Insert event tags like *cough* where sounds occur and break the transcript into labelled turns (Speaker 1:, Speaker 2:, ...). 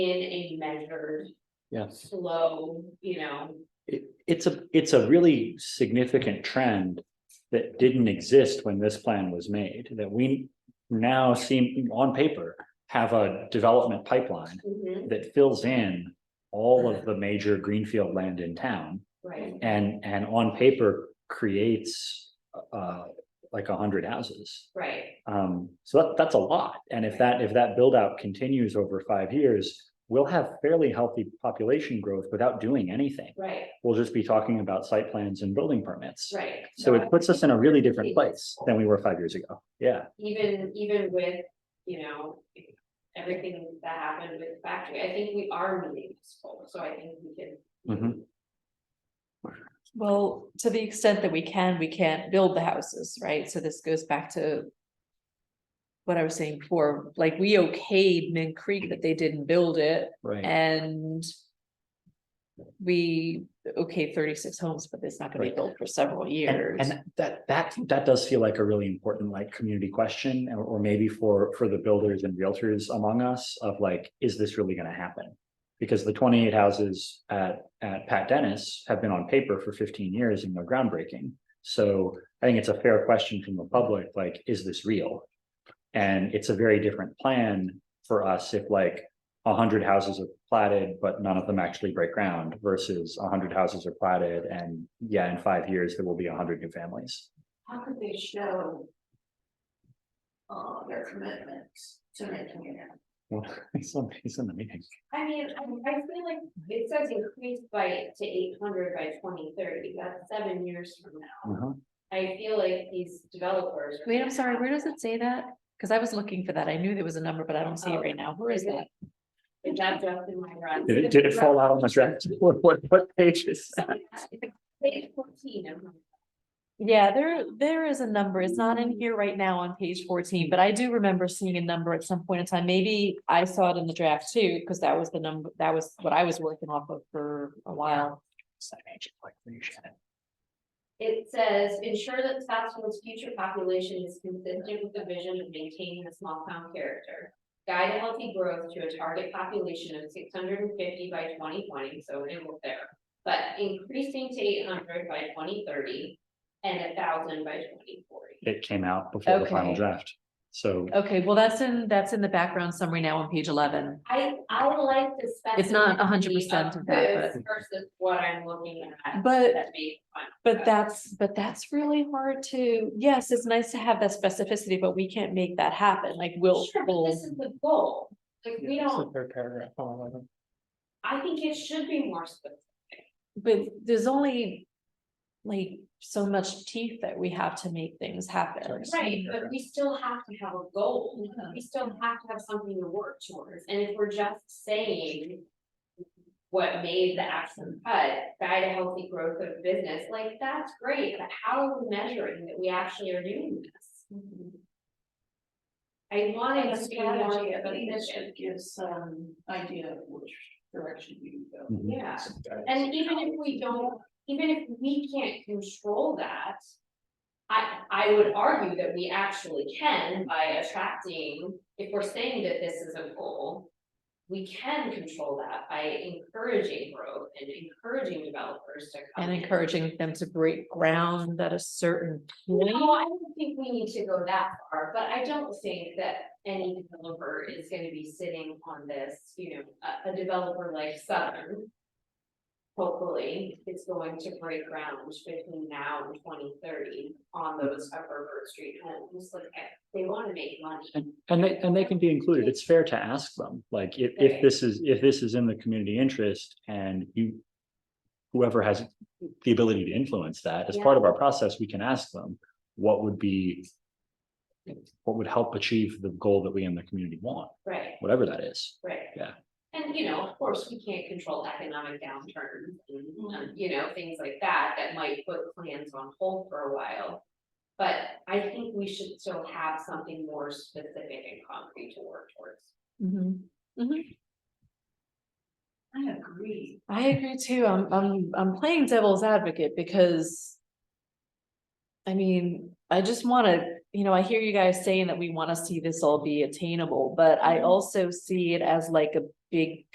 Speaker 1: in a measured,
Speaker 2: Yes.
Speaker 1: slow, you know,
Speaker 2: It, it's a, it's a really significant trend that didn't exist when this plan was made, that we now seem on paper have a development pipeline
Speaker 3: Mm-hmm.
Speaker 1: mhm,
Speaker 2: that fills in all of the major greenfield land in town
Speaker 1: right,
Speaker 2: and, and on paper creates uh, like a hundred houses.
Speaker 1: right,
Speaker 2: Um, so that, that's a lot. And if that, if that build out continues over five years, we'll have fairly healthy population growth without doing anything
Speaker 1: right,
Speaker 2: we'll just be talking about site plans and building permits.
Speaker 1: right.
Speaker 2: So
Speaker 1: No,
Speaker 2: it puts us in a really different
Speaker 1: Indeed.
Speaker 2: place than we were five years ago. Yeah,
Speaker 1: Even, even with, you know, everything that happened with the factory, I think we are meeting this goal, so I think we can.
Speaker 2: Mhm.
Speaker 3: Well, to the extent that we can, we can't build the houses, right? So this goes back to. What I was saying before, like we okayed Min Creek that they didn't build it
Speaker 2: right.
Speaker 3: and. We okay thirty-six homes, but it's not gonna be
Speaker 2: Right.
Speaker 3: built for several years.
Speaker 2: And, and that, that, that does feel like a really important like community question or, or maybe for, for the builders and realtors among us of like, is this really gonna happen? Because the twenty-eight houses at, at Pat Dennis have been on paper for fifteen years and they're groundbreaking. So I think it's a fair question from the public, like, is this real? And it's a very different plan for us if like a hundred houses are platted, but none of them actually break ground versus a hundred houses are platted and yeah, in five years, there will be a hundred new families.
Speaker 4: How could they show? Uh, their commitments to making it happen?
Speaker 2: Well, *laughs* Somebody's in the meeting.
Speaker 1: I mean, I, I feel like it says increase by, to eight hundred by twenty thirty, that's seven years from now.
Speaker 2: Uh-huh.
Speaker 1: I feel like these developers. are
Speaker 3: Wait, I'm
Speaker 1: gonna
Speaker 3: sorry,
Speaker 1: have-
Speaker 3: where does it say that? Cause I was looking for that. I knew there was a number, but I don't see it
Speaker 1: Oh,
Speaker 3: right now. Where is
Speaker 1: is it-
Speaker 3: that?
Speaker 1: Is that just in my run?
Speaker 2: Did it, did it fall out on the draft? *laughs* What, what, what pages?
Speaker 1: Page fourteen, I'm-
Speaker 3: Yeah, there, there is a number. It's not
Speaker 1: Mm-hmm.
Speaker 3: in here right now on page fourteen, but I do remember seeing a number at some point in time. Maybe I saw it in the draft too, because that was the number, that was what I was working off of for a while.
Speaker 1: It says, ensure that Scottsville's future population is consistent with the vision of maintaining a small town character. Guide healthy growth to a target population of six hundred and fifty by twenty twenty, so it will there. But increasing to eight hundred by twenty thirty and a thousand by twenty forty.
Speaker 2: It came out before the final
Speaker 3: Okay.
Speaker 2: draft. So
Speaker 3: Okay, well, that's in, that's in the background summary now on page eleven.
Speaker 1: I, I like the specificity.
Speaker 3: It's not 100% of that,
Speaker 1: this Versus what I'm looking at.
Speaker 3: But-
Speaker 1: that may-
Speaker 3: But that's, but that's really hard to, yes, it's nice to have that specificity, but we can't make that happen. Like we'll,
Speaker 1: Sure, but
Speaker 3: we'll.
Speaker 1: this is the goal. Like, we don't,
Speaker 5: Third paragraph on eleven.
Speaker 1: I think it should be more specific.
Speaker 3: but there's only like so much teeth that we have to make things happen.
Speaker 1: Right, but we still have to have a goal, we still have to have something to work towards, and if we're just saying. What made the action cut, guide a healthy growth of business, like, that's great, but how are we measuring that we actually are doing this? I wanted to be more
Speaker 4: Strategy, I think that
Speaker 1: specific,
Speaker 4: should give some idea of which direction you go.
Speaker 2: Mhm.
Speaker 1: yeah, and even if we don't, even if we can't control that. I, I would argue that we actually can by attracting, if we're saying that this is a goal. We can control that by encouraging growth and encouraging developers to come.
Speaker 3: And
Speaker 1: in.
Speaker 3: encouraging them to break ground at a certain point.
Speaker 1: No, I don't think we need to go that far, but I don't think that any developer is gonna be sitting on this, you know, a, a developer like Southern. Hopefully, is going to break ground between now and twenty thirty on those upper Bird Street homes, like, I- they wanna make money.
Speaker 2: And, and they, and they can be included. It's fair to ask them, like, if, if
Speaker 1: Right.
Speaker 2: this is, if this is in the community interest and you. Whoever has the ability to influence that, as part of our process, we can ask them, what would be. What would help achieve the goal that we in the community want,
Speaker 1: Right,
Speaker 2: whatever that is.
Speaker 1: right.
Speaker 2: Yeah.
Speaker 1: And, you know, of course, we can't control economic downturns and, um, you know, things like that, that might put plans on hold for a while. But I think we should still have something more specific and concrete to work towards.
Speaker 3: Mhm.
Speaker 4: I agree.
Speaker 3: I agree too. I'm, I'm, I'm playing devil's advocate because. I mean, I just wanna, you know, I hear you guys
Speaker 4: Mm-hmm.
Speaker 3: saying that we wanna see this all be attainable, but I also see it as like a big